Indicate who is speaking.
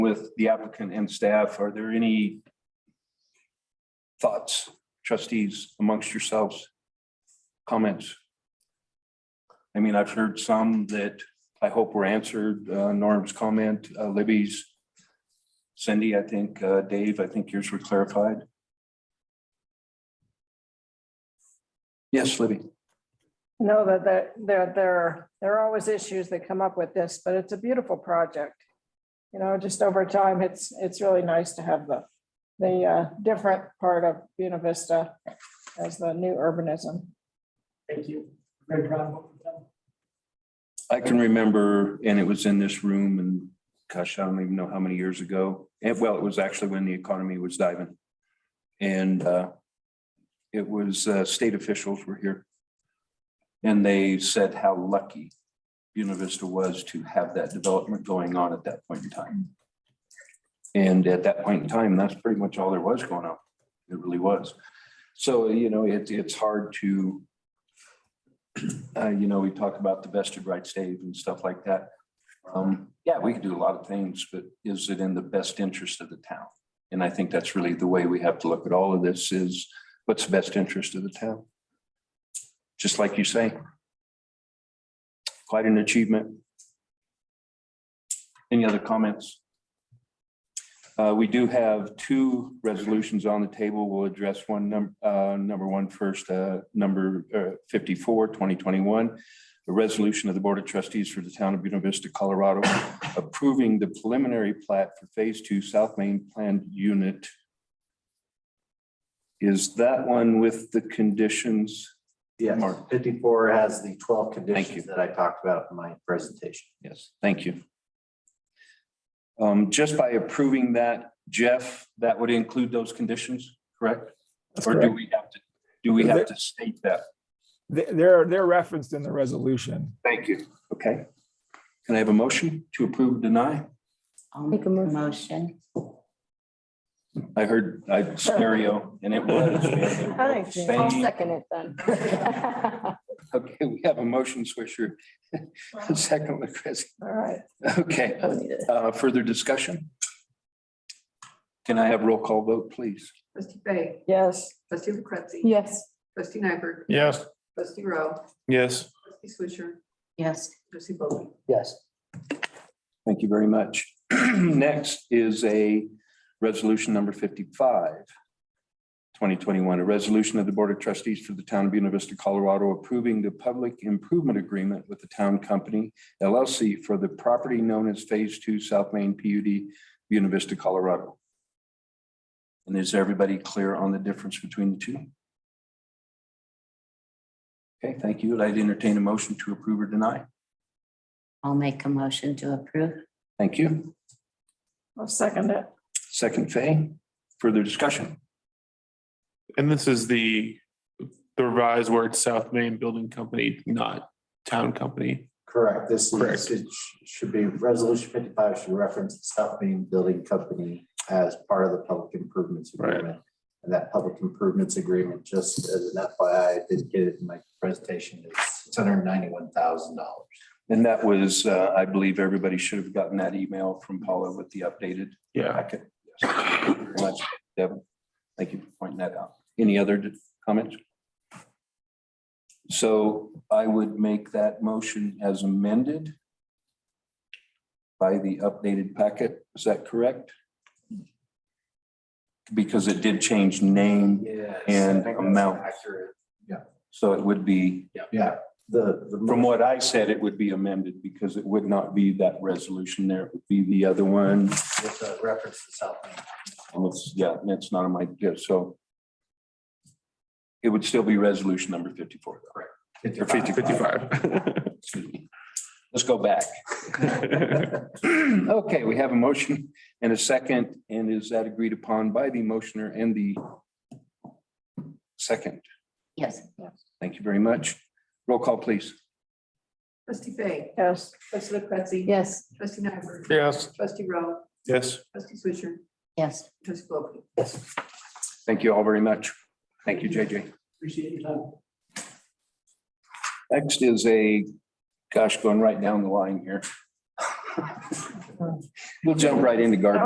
Speaker 1: with the applicant and staff, are there any thoughts, trustees amongst yourselves? Comments? I mean, I've heard some that I hope were answered, uh, Norm's comment, uh, Libby's. Cindy, I think, uh, Dave, I think yours were clarified. Yes, Libby.
Speaker 2: No, that, that, there, there, there are always issues that come up with this, but it's a beautiful project. You know, just over time, it's, it's really nice to have the, the uh, different part of Buena Vista as the new urbanism.
Speaker 3: Thank you. Very proud of what we've done.
Speaker 1: I can remember, and it was in this room and gosh, I don't even know how many years ago. And well, it was actually when the economy was diving. And uh, it was uh, state officials were here. And they said how lucky Buena Vista was to have that development going on at that point in time. And at that point in time, that's pretty much all there was going on. It really was. So, you know, it's, it's hard to uh, you know, we talk about the vested rights Dave and stuff like that. Um, yeah, we could do a lot of things, but is it in the best interest of the town? And I think that's really the way we have to look at all of this is what's the best interest of the town? Just like you say. Quite an achievement. Any other comments? Uh, we do have two resolutions on the table. We'll address one num- uh, number one first, uh, number uh, 54, 2021. A resolution of the Board of Trustees for the Town of Buena Vista, Colorado, approving the preliminary plat for Phase Two South Main Planned Unit. Is that one with the conditions?
Speaker 4: Yes,
Speaker 1: Mark.
Speaker 4: fifty-four has the twelve
Speaker 1: you.
Speaker 4: conditions that I talked about in my presentation.
Speaker 1: Yes, thank you. Um, Just by approving that, Jeff, that would include those conditions, correct? Or do we have to, do we have to state that?
Speaker 5: They- They're, they're referenced in the resolution.
Speaker 1: Thank you. Okay. Can I have a motion to approve, deny?
Speaker 6: I'll make a motion.
Speaker 1: I heard I stereo and it
Speaker 2: I
Speaker 1: was.
Speaker 2: think-
Speaker 1: Same.
Speaker 6: it then.
Speaker 1: Okay, we have a motion, Swisher. Second with Chris.
Speaker 2: All right,
Speaker 1: Okay, uh, further discussion? Can I have roll call vote, please?
Speaker 7: Trustee Fay,
Speaker 2: yes.
Speaker 7: trustee Lucrezi.
Speaker 6: Yes.
Speaker 7: Trustee Nyberg,
Speaker 5: Yes.
Speaker 7: trustee Rowe,
Speaker 5: Yes.
Speaker 7: trustee Swisher,
Speaker 6: Yes.
Speaker 7: trustee Bowie.
Speaker 4: Yes.
Speaker 1: Thank you very much. Next is a resolution number 55, 2021, a resolution of the Board of Trustees for the Town of Buena Vista, Colorado, approving the public improvement agreement with the town company LLC for the property known as Phase Two South Main PUD, Buena Vista, Colorado. And is everybody clear on the difference between the two? Okay, thank you. I'd entertain a motion to approve or deny.
Speaker 6: I'll make a motion to approve.
Speaker 1: Thank you.
Speaker 2: I'll second it.
Speaker 1: Second, Fay. Further discussion?
Speaker 8: And this is the, the revised word South Main Building Company, not town company.
Speaker 4: Correct, this
Speaker 8: Correct.
Speaker 4: is, it sh- should be, resolution fifty-five should reference the South Main Building Company as part of the public improvements
Speaker 8: Right.
Speaker 4: agreement. And that public improvements agreement, just as an FYI, I did get it in my presentation, is six hundred ninety-one thousand dollars.
Speaker 1: And that was, uh, I believe everybody should have gotten that email from Paula with the updated
Speaker 8: Yeah.
Speaker 1: packet. Yes. Thank you very much, Devin. Thank you for pointing that out. Any other d- comments? So I would make that motion as amended by the updated packet. Is that correct? Because it did change name,
Speaker 4: Yeah.
Speaker 1: And amount.
Speaker 4: Accurate.
Speaker 1: so it would be
Speaker 4: Yeah, the, the.
Speaker 1: From what I said, it would be amended because it would not be that resolution there. It would be the other one.
Speaker 4: With the reference to South Main.
Speaker 1: And it's- Yeah, and it's not on my, yeah, so. It would still be resolution number fifty-four, correct? Or 55.
Speaker 8: Fifty-five.
Speaker 1: Excuse me. Let's go back. Okay, we have a motion and a second, and is that agreed upon by the motioner and the second?
Speaker 6: Yes.
Speaker 1: Thank you very much. Roll call, please.
Speaker 7: Trustee Fay,
Speaker 2: Yes,
Speaker 7: trustee Lucrezi.
Speaker 6: Yes.
Speaker 7: Trustee Nyberg,
Speaker 8: Yes.
Speaker 7: trustee Rowe,
Speaker 8: Yes.
Speaker 7: trustee Swisher,
Speaker 6: Yes.
Speaker 7: trustee Bowie.
Speaker 1: Thank you all very much. Thank you, JJ.
Speaker 3: Appreciate your time.
Speaker 1: Next is a, gosh, going right down the line here. We'll jump right into garden.